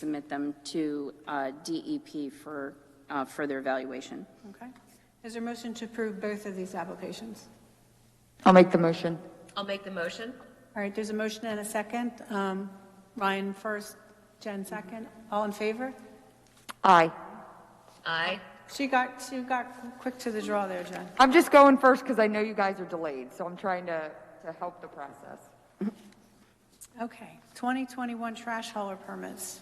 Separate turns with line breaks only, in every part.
submit them to uh, DEP for uh, further evaluation.
Okay. Is there a motion to approve both of these applications?
I'll make the motion.
I'll make the motion.
All right, there's a motion and a second. Um, Ryan first, Jen second. All in favor?
Aye.
Aye.
She got, she got quick to the draw there, Jen.
I'm just going first because I know you guys are delayed, so I'm trying to, to help the process.
Okay. 2021 trash hauler permits.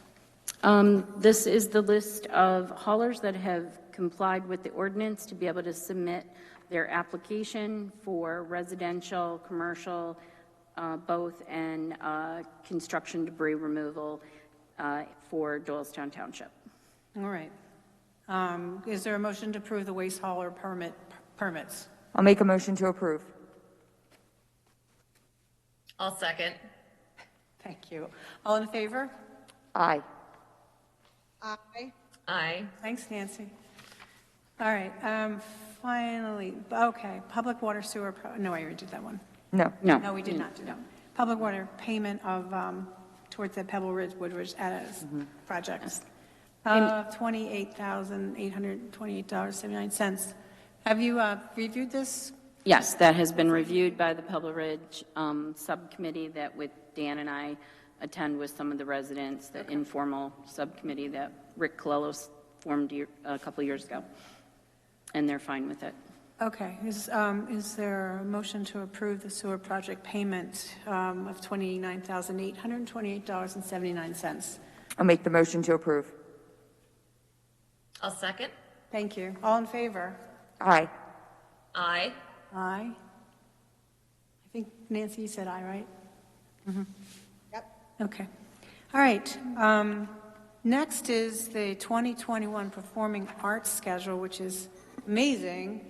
Um, This is the list of haulers that have complied with the ordinance to be able to submit their application for residential, commercial, uh, both, and uh, construction debris removal uh, for Doylestown Township.
All right. Um, Is there a motion to approve the waste hauler permit, permits?
I'll make a motion to approve.
I'll second.
Thank you. All in favor?
Aye.
Aye.
Thanks, Nancy. All right, um, finally, okay, public water sewer, pro- no, I already did that one.
No.
No.
No, we did not do that. Public water payment of, um, towards the Pebble Ridge Woodridge Addis project of $28,828.79. Have you uh, reviewed this?
Yes, that has been reviewed by the Pebble Ridge um, Subcommittee that with Dan and I attend with some of the residents, the informal subcommittee that Rick Colelos formed year- a couple years ago, and they're fine with it.
Okay, is, um, is there a motion to approve the sewer project payment um, of $29,828.79?
I'll make the motion to approve.
I'll second.
Thank you. All in favor?
Aye.
Aye.
Aye. I think Nancy, you said aye, right? Yep. Okay. All right. um, Next is the 2021 Performing Arts Schedule, which is amazing,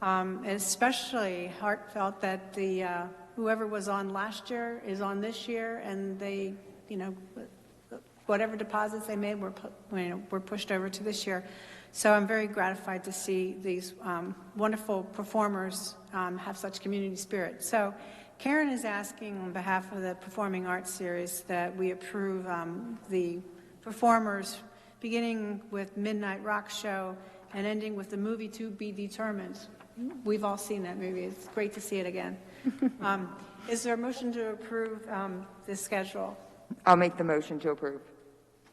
um, especially heartfelt that the, uh, whoever was on last year is on this year, and they, you know, whatever deposits they made were, pu- you know, were pushed over to this year. So I'm very gratified to see these um, wonderful performers um, have such community spirit. So Karen is asking on behalf of the Performing Arts Series that we approve um, the performers, beginning with Midnight Rock Show and ending with the movie To Be Determined. We've all seen that movie. It's great to see it again. Um, Is there a motion to approve um, this schedule?
I'll make the motion to approve.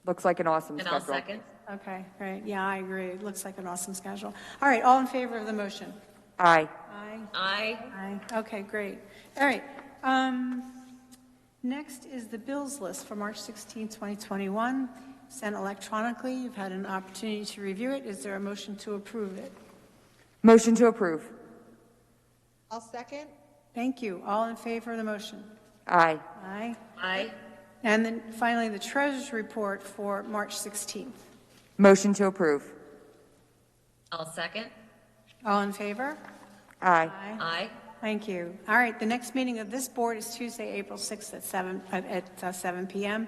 Looks like an awesome
And
schedule.
I'll second.
Okay, great, yeah, I agree, it looks like an awesome schedule. All right, all in favor of the motion?
Aye.
Aye.
Aye.
Aye, okay, great, all right. um, Next is the bills list for March 16, 2021, sent electronically, you've had an opportunity to review it, is there a motion to approve it?
Motion to approve.
I'll second.
Thank you, all in favor of the motion?
Aye.
Aye.
Aye.
And then finally, the treasurer's report for March 16th.
Motion to approve.
I'll second.
All in favor?
Aye.
Aye.
Aye.
Thank you. All right, the next meeting of this board is Tuesday, April 6th at 7, uh, at uh, 7 PM.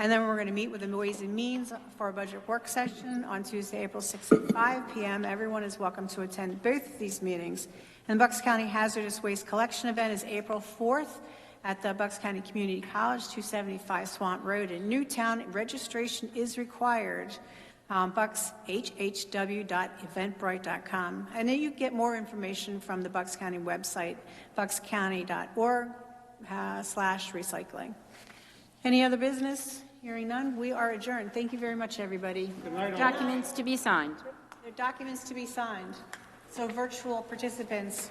And then we're going to meet with the Ways and Means for a budget work session on Tuesday, April 6th at 5 PM. Everyone is welcome to attend both of these meetings. And the Bucks County Hazardous Waste Collection Event is April 4th at the Bucks County Community College, 275 Swamp Road in Newtown. Registration is required um, buckshhw.eventbrite.com. And then you get more information from the Bucks County website, buckscounty.org uh, slash recycling. Any other business? Hearing none, we are adjourned. Thank you very much, everybody.
Documents to be signed.
There are documents to be signed, so virtual participants,